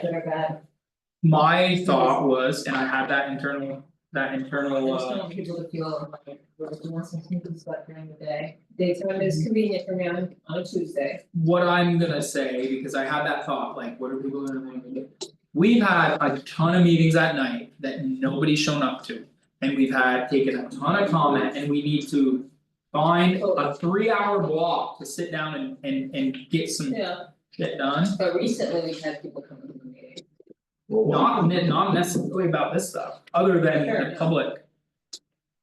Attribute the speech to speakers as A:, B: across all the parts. A: good or bad,
B: My thought was, and I had that internal, that
A: I
B: internal
A: just don't
B: uh,
A: want people to feel like we're doing some things like during the day. Daytime
B: Mm-hmm.
A: is convenient for me on on a Tuesday,
B: what I'm gonna say, because I had that thought, like, what are people gonna want to do? We've had a ton of meetings at night that nobody's shown up to, and we've had taken a ton of comment, and we need to. Find a three hour block to sit down and and and get some
A: yeah,
B: shit done,
A: but recently we've had people come to the meeting.
B: not ne- not necessarily about this stuff, other than the public.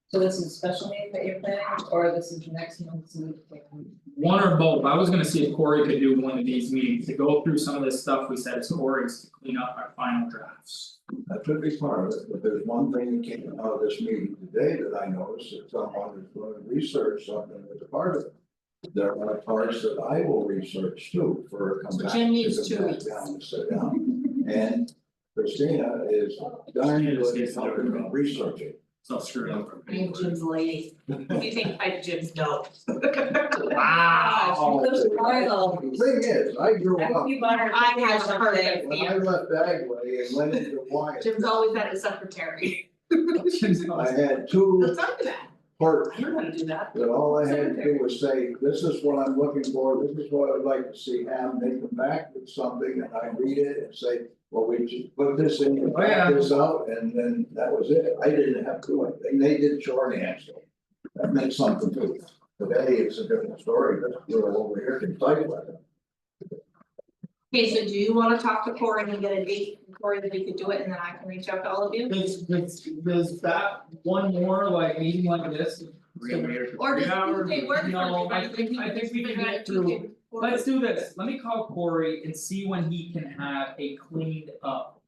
A: So this is a special meeting that you're planning, or this is next month's meeting?
B: One or both, I was gonna see if Corey could do one of these meetings to go through some of this stuff we said is Corey's to clean up our final drafts.
C: That could be part of it, but there's one thing that came out of this meeting today that I noticed, that someone is going to research something that's a part of it. There are parts that I will research too for a comeback
D: Jim
C: to
D: needs two
C: come back
D: weeks.
C: down and sit down. And Christina is darn
B: Christina
C: good
B: stays
C: at
B: there.
C: helping researching.
B: It's all screwed up.
D: I'm Jim's lady. What do you think by Jim's note?
B: Wow.
A: Gosh, those wild.
C: The Thing is, I grew
A: I
C: up,
A: think you bought her.
D: I haven't heard it.
C: when I left Bagley and went into Wyatt,
D: Jim's always at his secretary.
C: I had two
D: Let's talk to that.
C: parts
D: I don't know how to do that.
C: that all I had to do was say, this is what I'm looking for, this is what I'd like to see happen, they come back with something, and I read it and say, well, we should put this in, and
B: Oh, yeah.
C: back this out, and then that was it, I didn't have to do anything, they did shorthand, so that meant something to me. Today, it's a different story, but we're over here can fight with it.
D: Okay, so do you wanna talk to Corey and get a date, from Corey, that we could do it, and then I can reach out to all of you?
B: Does does does that one more like meeting like this?
D: Or does
B: Yeah, or-
D: Tuesday work for
B: no, I
D: everybody?
B: think-
D: We
B: I
D: can
B: think we
D: figure
B: can
D: out
B: get
D: Tuesday before-
B: Let's do this, let me call Corey and see when he can have a cleaned up.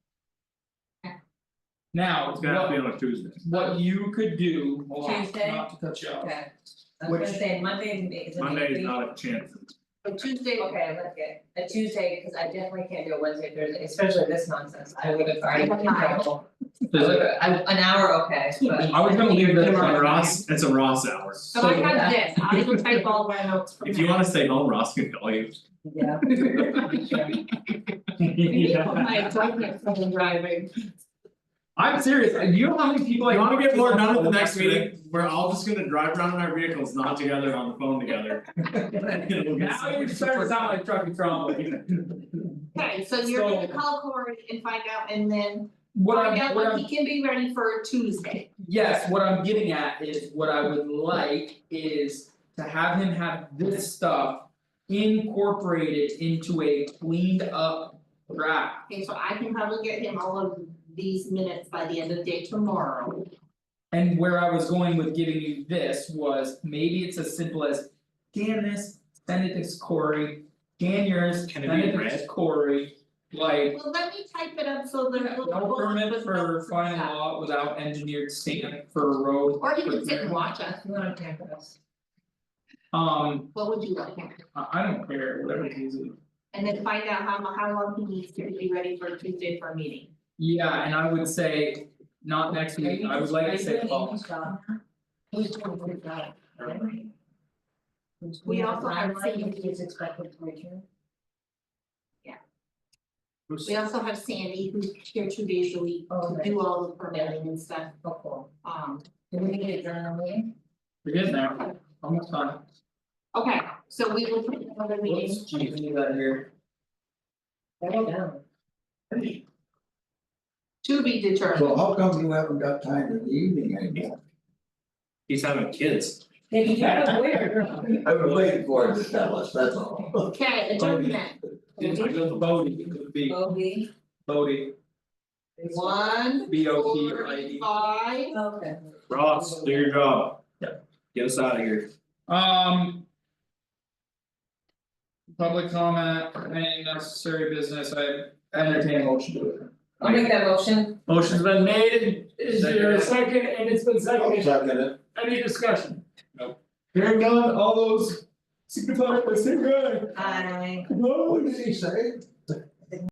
B: Now,
E: It's gotta be
B: what
E: on a Tuesday.
B: what you could do, hold on,
A: Tuesday?
B: not to cut you off.
A: Okay, I was gonna
B: Which-
A: say Monday is a.
E: Monday is
A: meeting.
E: not a chance.
D: So Tuesday, okay.
A: Okay, let's get a Tuesday, because I definitely can't do a Wednesday, Thursday, especially this nonsense, I would have already been available.
B: Does it-
A: I- an hour, okay, but.
B: I was gonna leave
E: It's
B: this
E: a
B: on Ross,
E: Ross, it's a Ross hour.
D: so I have this, I will type all my notes from
E: If you
D: that.
E: wanna stay home, Ross can call you.
A: Yeah.
D: Maybe I'll put my appointment from the driving.
B: I'm serious, you know how many people I.
E: You wanna get more done at the
B: talk to
E: next meeting, we're all just gonna drive around in our vehicles, not together on the phone together.
B: Now you're starting to sound like Truckee Trump.
D: Okay, so you're gonna
B: So-
D: call Corey and find out, and then
B: What
D: find
B: I'm,
D: out
B: what I'm
D: when he can be ready for Tuesday.
B: Yes, what I'm getting at is what I would like is to have him have this stuff. Incorporated into a cleaned up draft.
D: Okay, so I can probably get him all of these minutes by the end of the day tomorrow.
B: And where I was going with giving you this was maybe it's as simple as. Scan this, send it to Corey, scan yours,
E: Can
B: send
E: it be
B: it to
E: red?
B: Corey, like.
D: Well, let me type it up so there's a little
B: No permit for final law without engineered stamp for a road.
D: Or you can sit and watch us,
A: You wanna camp with us?
B: Um,
D: what would you like him? to do?
B: I I don't care, whatever it is.
D: And then find out how mu- how long he needs to be ready for Tuesday for a meeting.
B: Yeah, and I would say, not next week, I would like to say,
A: Are you
B: well,
A: doing English job? Who's doing good job? Who's
D: We
A: doing
D: also
A: the
D: have
A: limelight?
D: seen-
A: Who's expected to return?
D: We also have Sandy who's here two days a week
A: Oh,
D: to
A: right.
D: do all the permitting and stuff,
A: Oh, cool.
D: um.
A: Do we need a journal meeting?
B: we're good now, almost done.
D: Okay, so we will put another meeting.
B: Whoops, geez, we need that here.
A: Write it down.
D: To be determined,
C: So how come you haven't got time in the evening anymore?
E: He's having kids.
A: They can do it where?
C: I was waiting for him to tell us, that's all.
D: okay, adjournment,
B: It's like little Bodie, it could be
A: Bogey.
B: Bodie,
D: one,
B: B O T
D: four,
B: or I D.
D: five,
A: Okay.
E: Ross, do your job. Get us out of here.
B: Um. Public comment, any necessary business, I entertain a motion to it.
A: I'll make that motion.
E: Motion's been made,
F: Is there a second, and it's been
C: I'll
F: seconded,
C: second it.
F: any discussion?
B: Hearing none, all those signify by saying aye.
A: Aye.
C: What did he say?